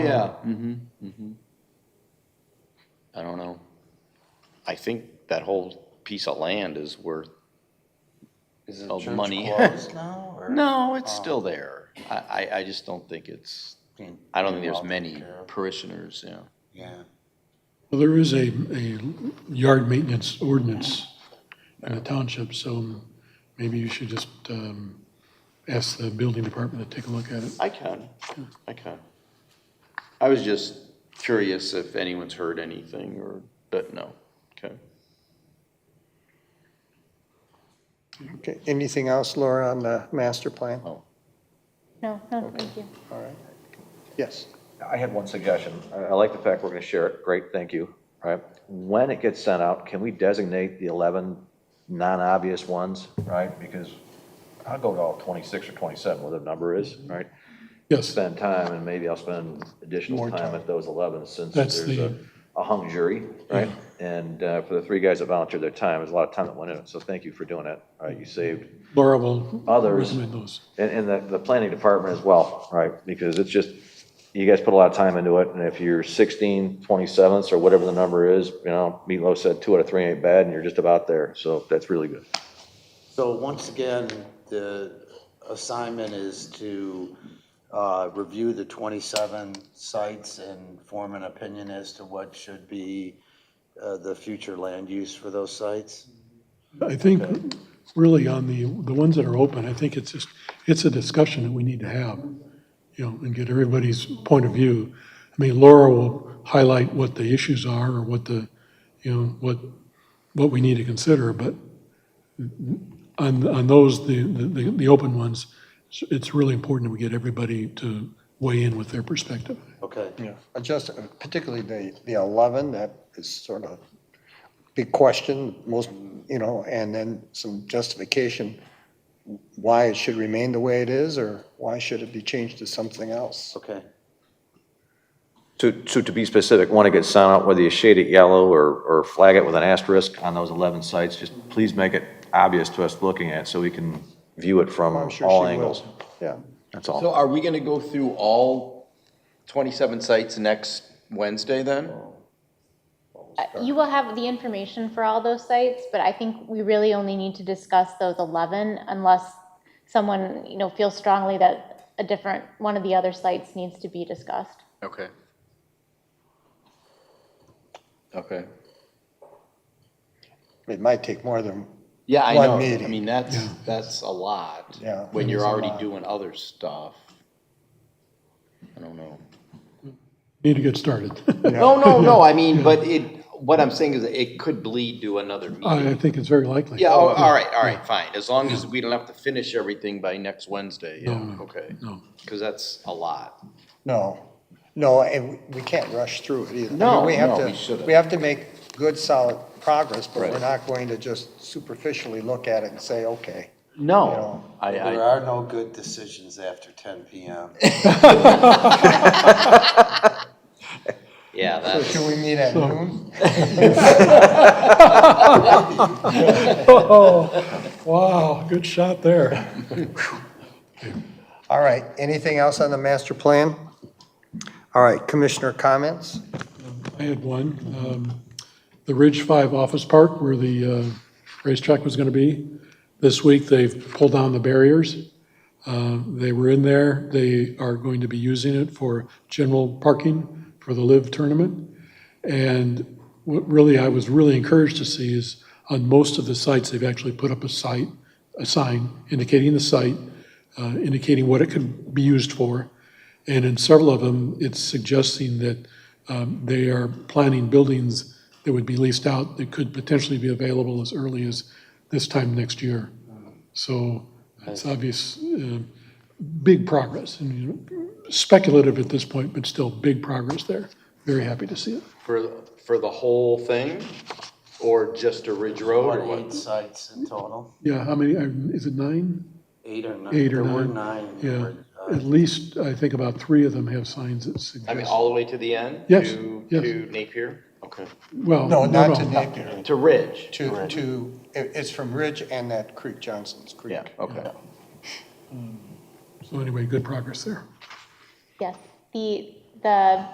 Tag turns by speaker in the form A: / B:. A: Yeah, mm-hmm, mm-hmm. I don't know. I think that whole piece of land is worth,
B: Is the
A: Of
B: church
A: money.
B: closed now? or
A: no, it's still there. I, I, I just don't think it's,
B: being-
A: I don't think
B: being
A: there's
B: well
A: many
B: taken care of?
A: parishioners, you know.
B: Yeah,
C: Well, there is a, a yard maintenance ordinance in the township, so maybe you should just um, ask the building department to take a look at it.
A: I can, I can. I was just curious if anyone's heard anything or, but no, okay.
D: Okay, anything else, Laura, on the master plan?
A: Oh,
E: No, no, thank you.
D: All right. Yes,
F: I had one suggestion. I I like the fact we're going to share it. Great, thank you. All Right? When it gets sent out, can we designate the 11 non-obvious ones, right? Because I'll go to all 26 or 27, whatever the number is,
C: Mm-hmm.
F: right?
C: Yes,
F: Spend time, and maybe I'll spend additional
C: More
F: time
C: time.
F: at those 11 since
C: That's
F: there's a
C: the-
F: a hung jury, right? And uh, for the three guys that volunteered their time, there's a lot of time that went in it. So thank you for doing it. All right, you saved
C: Laura will
F: Others.
C: recommend those.
F: and, and the, the planning department as well, right? Because it's just, you guys put a lot of time into it, and if you're 16, 27ths, or whatever the number is, you know, Meatloaf said two out of three ain't bad, and you're just about there, so that's really good.
B: so once again, the assignment is to uh, review the 27 sites and form an opinion as to what should be uh, the future land use for those sites?
C: I think really on the, the ones that are open, I think it's just, it's a discussion that we need to have, you know, and get everybody's point of view. I mean, Laura will highlight what the issues are or what the, you know, what, what we need to consider, but on, on those, the, the, the open ones, it's- it's really important that we get everybody to weigh in with their perspective.
B: Okay,
D: Uh, just uh, particularly the, the 11, that is sort of big question, most, you know, and then some justification why it should remain the way it is, or why should it be changed to something else?
B: okay.
F: So, so to be specific, want to get sent out, whether you shade it yellow or, or flag it with an asterisk on those 11 sites, just please make it obvious to us looking at, it so we can view it from
D: I'm sure
F: all
D: she will.
F: angles.
D: Yeah,
F: That's all.
G: So are we gonna go through all twenty-seven sites next Wednesday then?
E: Uh, You will have the information for all those sites, but I think we really only need to discuss those 11 unless someone, you know, feels strongly that a different, one of the other sites needs to be discussed.
G: Okay. Okay.
D: it might take more than,
A: Yeah, I
D: One
A: know. I
D: meeting.
A: mean, that's, that's a lot.
D: Yeah,
A: When
D: it
A: you're
D: is a
A: already
D: lot.
A: doing other stuff. I don't know.
C: Need to get started.
A: No, no, no, I mean, but it, what I'm saying is it could bleed to another
C: I
D: Oh,
A: meeting.
C: think it's very likely.
A: Yeah, oh, all right, all right, fine, as long as we don't have to finish everything by next Wednesday, yeah,
C: No,
A: okay.
C: no.
A: Because that's a lot.
D: no, no, and we- we can't rush through it either. I mean,
A: No,
D: have
A: no,
D: to-
A: we shouldn't.
D: We have to make good, solid progress, but we're
A: Right.
D: not going to just superficially look at it and say, okay.
A: No, I,
B: There
A: I,
B: are no good decisions after 10 PM.
A: yeah,
D: So
A: that's,
D: should we meet at noon?
C: Oh, Wow, good shot there.
D: All right, anything else on the master plan? All right, commissioner comments?
C: I had one. Um, The Ridge Five Office Park, where the uh, racetrack was going to be, this week, they've pulled down the barriers. Uh, They were in there. They are going to be using it for general parking for the Live Tournament. And what really, I was really encouraged to see is on most of the sites, they've actually put up a site, a sign indicating the site, uh, indicating what it could be used for. And in several of them, it's suggesting that um, they are planning buildings that would be leased out that could potentially be available as early as this time next year. So it's obvious, uh, big progress, and you know, speculative at this point, but still big progress there. Very happy to see it.
A: for, for the whole thing? Or just a Ridge Road or
B: What,
A: what?
B: eight sites in total?
C: Yeah, how many, uh, is it nine?
B: Eight or nine?
C: Eight or
B: There were
C: nine.
B: nine. that
C: Yeah,
B: were, uh,
C: at least, I think about three of them have signs that
A: I mean,
C: suggest,
A: all the way to the end?
C: Yes,
A: To,
C: yes.
A: to Napier? Okay.
C: well,
D: No,
C: no,
D: not to
C: no.
D: Napier,
A: To Ridge?
D: to, to, it- it's from Ridge and that creek, Johnson's Creek.
A: Yeah, okay.
C: So anyway, good progress there.
E: Yes, the, the